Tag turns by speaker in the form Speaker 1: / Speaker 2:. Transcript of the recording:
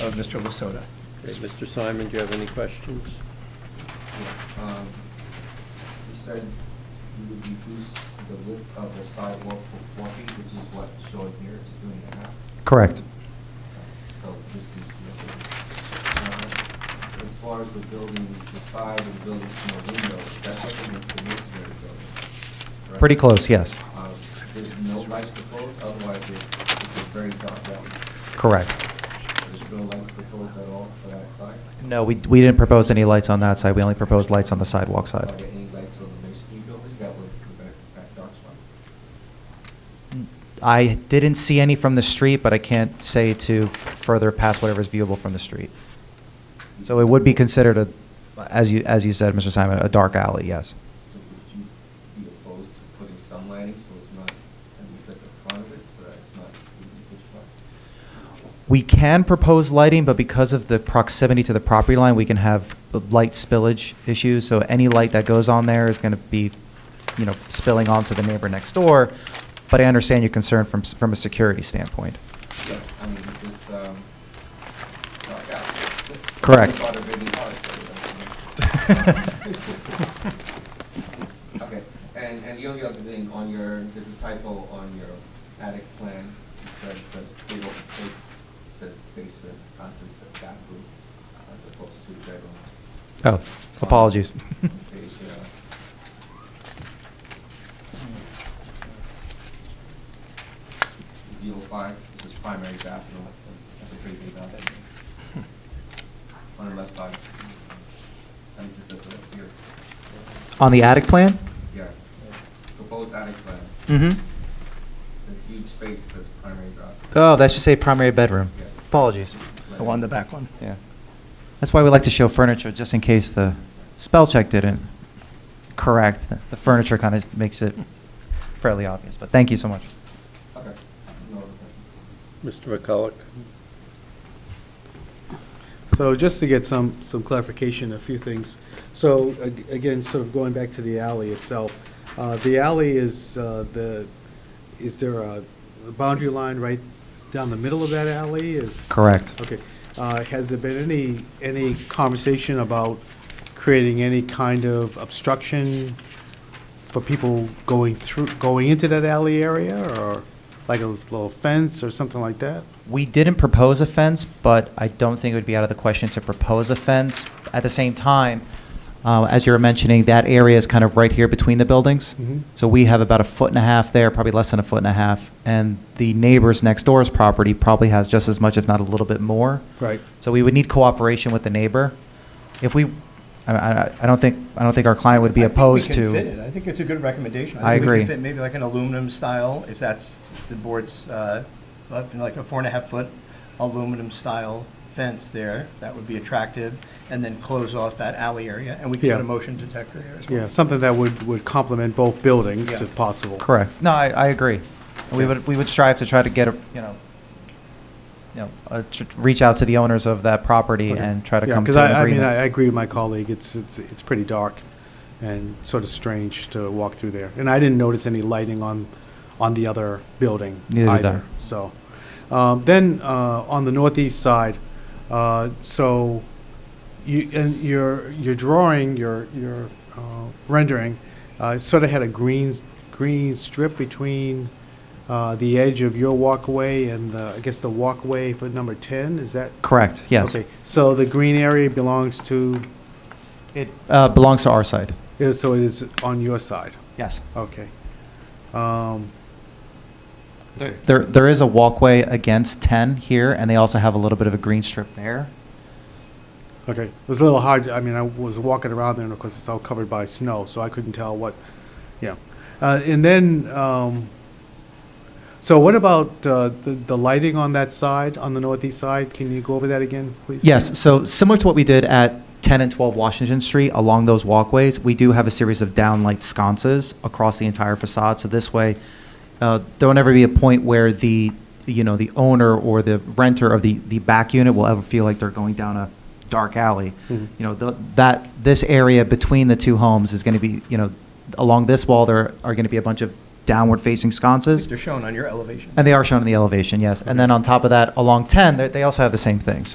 Speaker 1: of Mr. Lasota.
Speaker 2: Okay, Mr. Simon, do you have any questions?
Speaker 3: Um, You said you would reduce the width of the sidewalk for four feet, which is what shown here, it's doing it now.
Speaker 4: Correct.
Speaker 3: So this is, uh, as far as the building, the side of the building from the window, that's up against the masonry building. correct?
Speaker 4: Pretty close, yes.
Speaker 3: Um, There's no lights proposed, otherwise it- it's a very dark alley.
Speaker 4: Correct.
Speaker 3: There's no lights proposed at all for that side?
Speaker 4: No, we, we didn't propose any lights on that side. We only proposed lights on the sidewalk
Speaker 3: Are
Speaker 4: side.
Speaker 3: there any lights on the masonry building that would prevent that dark spot?
Speaker 4: I didn't see any from the street, but I can't say to further past whatever's viewable from the street. So it would be considered a, as you, as you said, Mr. Simon, a dark alley, yes.
Speaker 3: So would you be opposed to putting some lighting so it's not, at least at the front of it, so that it's not completely pitch black?
Speaker 4: We can propose lighting, but because of the proximity to the property line, we can have light spillage issues. So any light that goes on there is going to be, you know, spilling onto the neighbor next door. But I understand your concern from, s- from a security standpoint.
Speaker 3: Yeah, I mean, it's- it's, um, dark out.
Speaker 4: Correct.
Speaker 3: Thought of any art, so that's- Okay, and, and the only other thing on your, there's a typo on your attic plan, it says, that's big open space, says basement, uh, says the bathroom, as opposed to bedroom.
Speaker 4: Oh, apologies.
Speaker 3: Page, uh, Zero five, this is primary bathroom, that's a pretty big bathroom.
Speaker 1: Hmm.
Speaker 3: On the left side. And this is just up here,
Speaker 4: On the attic plan?
Speaker 3: yeah. Proposed attic plan,
Speaker 4: Mm-hmm.
Speaker 3: the huge space says primary bathroom.
Speaker 4: Oh, that should say primary bedroom.
Speaker 3: Yeah.
Speaker 4: Apologies.
Speaker 1: The one, the back one.
Speaker 4: Yeah. That's why we like to show furniture, just in case the spell check didn't correct. The- The furniture kind of makes it fairly obvious, but thank you so much.
Speaker 3: Okay. No other questions?
Speaker 2: Mr. McCulloch?
Speaker 5: So just to get some, some clarification, a few things. So ag- again, sort of going back to the alley itself, uh, the alley is uh, the, is there a boundary line right down the middle of that alley is?
Speaker 4: Correct.
Speaker 5: Okay. Uh, Has there been any, any conversation about creating any kind of obstruction for people going through, going into that alley area or like a little fence or something like that?
Speaker 4: We didn't propose a fence, but I don't think it would be out of the question to propose a fence. At the same time, uh, as you were mentioning, that area is kind of right here between the buildings.
Speaker 1: Mm-hmm.
Speaker 5: Mhm.
Speaker 4: So we have about a foot and a half there, probably less than a foot and a half. And the neighbors next door's property probably has just as much, if not a little bit more.
Speaker 5: Right.
Speaker 4: So we would need cooperation with the neighbor. If we, I, I, I don't think, I don't think our client would be
Speaker 1: I think we
Speaker 4: opposed
Speaker 1: can
Speaker 4: to.
Speaker 1: fit it. I think it's a good recommendation.
Speaker 4: I
Speaker 1: think we can
Speaker 4: agree.
Speaker 1: fit Maybe like an aluminum style, if that's the board's, uh, up in like a four and a half foot aluminum style fence there, that would be attractive, and then close off that alley area, and we can
Speaker 5: Yeah.
Speaker 1: put a motion detector there as well.
Speaker 5: Yeah, something that would, would complement both buildings
Speaker 1: Yeah.
Speaker 5: if possible.
Speaker 4: Correct. No, I, I agree. We would, we would strive to try to get a, you know, you know, uh, tr- reach out to the owners of that property and try to come to
Speaker 5: Because I,
Speaker 4: an
Speaker 5: I mean, I I
Speaker 4: agreement.
Speaker 5: agree with my colleague, it's, it's, it's pretty dark and sort of strange to walk through there. And I didn't notice any lighting on, on the other building
Speaker 4: Neither did I.
Speaker 5: either, so. Um, Then, uh, on the northeast side, uh, so you, and your, your drawing, your, your uh, rendering, uh, sort of had a green, green strip between uh, the edge of your walkway and the, I guess the walkway for number 10, is that
Speaker 4: Correct, yes.
Speaker 5: Okay, so the green area belongs to,
Speaker 4: It uh, belongs to our side.
Speaker 5: is- so it is on your side?
Speaker 4: Yes.
Speaker 5: Okay. Um, okay.
Speaker 4: There, there is a walkway against 10 here, and they also have a little bit of a green strip there.
Speaker 5: Okay, it was a little hard, I mean, I was walking around there, and of course, it's all covered by snow, so I couldn't tell what, yeah. Uh, And then, um, so what about uh, the the lighting on that side, on the northeast side? Can you go over that again, please?
Speaker 4: Yes, so similar to what we did at 10 and 12 Washington Street, along those walkways, we do have a series of downlight sconces across the entire facade, so this way, uh, there will never be a point where the, you know, the owner or the renter of the, the back unit will ever feel like they're going down a dark alley. You
Speaker 5: Mhm.
Speaker 4: know, the- that, this area between the two homes is going to be, you know, along this wall, there are going to be a bunch of downward-facing sconces,
Speaker 1: They're shown on your elevation.
Speaker 4: and they are shown in the elevation, yes. And then on top of that, along 10, they- they also have the same thing,